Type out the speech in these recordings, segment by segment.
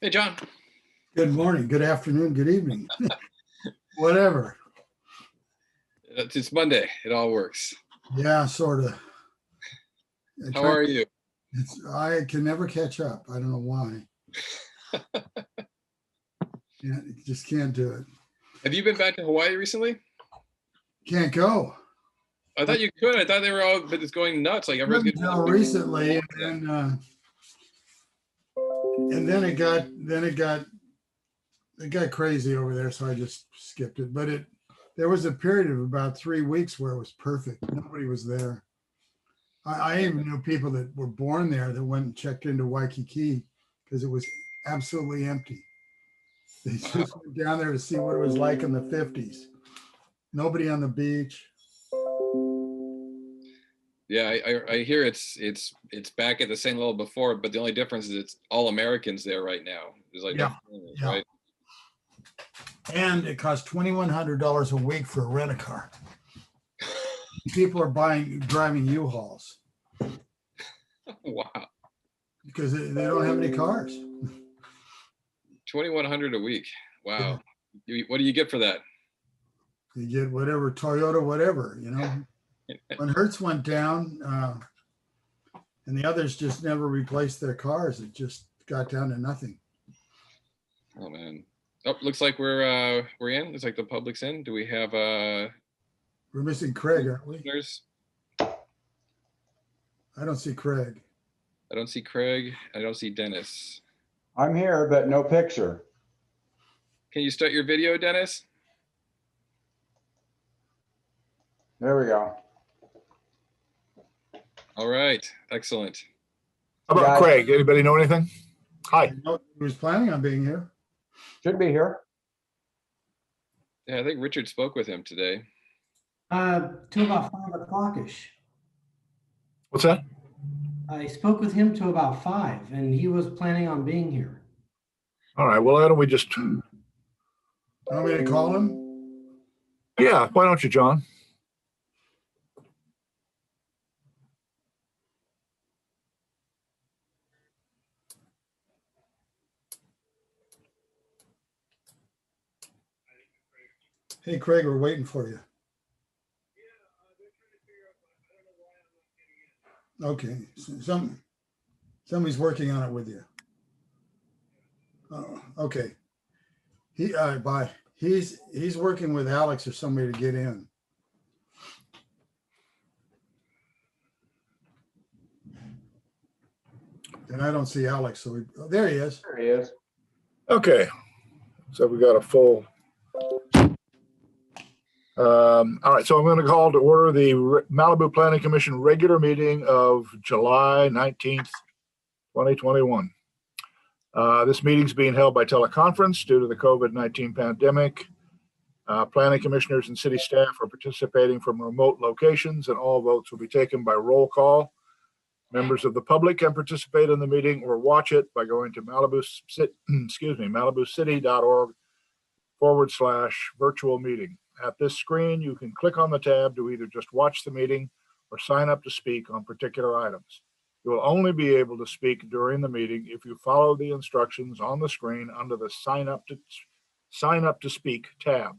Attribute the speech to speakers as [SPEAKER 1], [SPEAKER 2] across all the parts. [SPEAKER 1] Hey, John.
[SPEAKER 2] Good morning, good afternoon, good evening, whatever.
[SPEAKER 1] It's Uh, it's Monday. It all works.
[SPEAKER 2] Yeah, sort of.
[SPEAKER 1] How are you?
[SPEAKER 2] I can never catch up. I don't know why. Yeah, just can't do it.
[SPEAKER 1] Have you been back to Hawaii recently?
[SPEAKER 2] Can't go.
[SPEAKER 1] I thought you could. I thought they were all but it's going nuts. Like everyone's getting
[SPEAKER 2] Until recently, and then, uh, and then it got, then it got, it got crazy over there, so I just skipped it. But it, there was a period of about three weeks where it was perfect. Nobody was there. I, I even knew people that were born there that went and checked into Waikiki because it was absolutely empty. They just went down there to see what it was like in the fifties. Nobody on the beach.
[SPEAKER 1] Yeah, I, I I hear it's it's it's back at the same level before, but the only difference is it's all Americans there right now. There's like no
[SPEAKER 2] Yeah,
[SPEAKER 1] foreigners,
[SPEAKER 2] yeah.
[SPEAKER 1] right?
[SPEAKER 2] And it costs twenty-one hundred dollars a week for a rent a car. People are buying, driving U-Hauls
[SPEAKER 1] Wow.
[SPEAKER 2] because they they don't have any cars.
[SPEAKER 1] Twenty one hundred a week. Wow. You, what do you get for that?
[SPEAKER 2] You get whatever Toyota, whatever, you know? When Hertz went down, uh, and the others just never replaced their cars, it just got down to nothing.
[SPEAKER 1] Oh man. Oh, looks like we're uh we're in. Looks like the public's in. Do we have uh
[SPEAKER 2] We're missing Craig, aren't we?
[SPEAKER 1] listeners?
[SPEAKER 2] I don't see Craig.
[SPEAKER 1] I don't see Craig. I don't see Dennis.
[SPEAKER 3] I'm here, but no picture.
[SPEAKER 1] Can you start your video, Dennis?
[SPEAKER 3] There we go.
[SPEAKER 1] All right, excellent.
[SPEAKER 4] How about
[SPEAKER 3] Yeah.
[SPEAKER 4] Craig? Anybody know anything? Hi.
[SPEAKER 2] I know He was planning on being here.
[SPEAKER 3] Should be here.
[SPEAKER 1] Yeah, I think Richard spoke with him today.
[SPEAKER 5] Uh, till about five o'clockish.
[SPEAKER 4] What's that?
[SPEAKER 5] I spoke with him till about five, and he was planning on being here.
[SPEAKER 4] All right. Well, why don't we just,
[SPEAKER 2] Want me to call him?
[SPEAKER 4] yeah, why don't you, John?
[SPEAKER 2] Hey, Craig, we're waiting for you. Okay, s- some, somebody's working on it with you. Oh, okay. He, uh, bye. He's, he's working with Alex or somebody to get in. And I don't see Alex, so we, oh, there he is.
[SPEAKER 3] There he is.
[SPEAKER 4] Okay. So we got a full. Um, all right. So I'm going to call to order the Re- Malibu Planning Commission regular meeting of July 19th, 2021. Uh, this meeting's being held by teleconference due to the COVID-19 pandemic. Uh, planning commissioners and city staff are participating from remote locations and all votes will be taken by roll call. Members of the public can participate in the meeting or watch it by going to Malibu, Ci- excuse me, malibucity.org forward slash virtual meeting. At this screen, you can click on the tab to either just watch the meeting or sign up to speak on particular items. You will only be able to speak during the meeting if you follow the instructions on the screen under the sign up to, sign up to speak tab.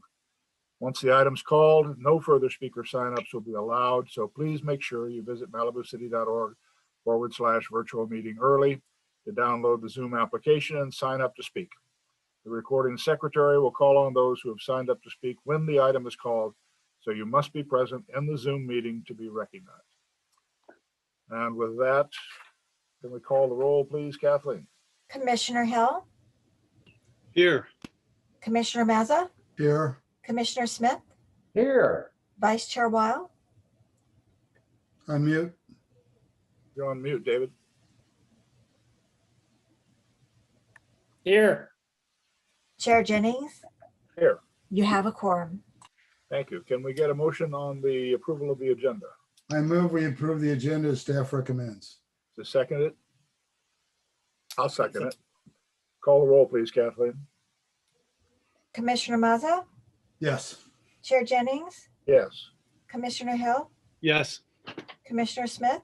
[SPEAKER 4] Once the item's called, no further speaker signups will be allowed, so please make sure you visit malibucity.org forward slash virtual meeting early to download the Zoom application and sign up to speak. The recording secretary will call on those who have signed up to speak when the item is called, so you must be present in the Zoom meeting to be recognized. And with that, can we call the roll, please, Kathleen?
[SPEAKER 6] Commissioner Hill,
[SPEAKER 7] Here,
[SPEAKER 6] Commissioner Mazza,
[SPEAKER 2] Here,
[SPEAKER 6] Commissioner Smith,
[SPEAKER 3] Here.
[SPEAKER 6] Vice Chair Weil,
[SPEAKER 2] unmute.
[SPEAKER 4] You're on mute, David.
[SPEAKER 6] Chair Jennings.
[SPEAKER 4] Here.
[SPEAKER 6] You have a quorum.
[SPEAKER 4] Thank you. Can we get a motion on the approval of the agenda?
[SPEAKER 2] I move we approve the agenda as staff recommends.
[SPEAKER 4] To second it? I'll second it. Call the roll, please, Kathleen.
[SPEAKER 6] Commissioner Mazza,
[SPEAKER 2] Yes.
[SPEAKER 6] Chair Jennings,
[SPEAKER 4] Yes.
[SPEAKER 6] Commissioner Hill,
[SPEAKER 7] yes,
[SPEAKER 6] Commissioner Smith?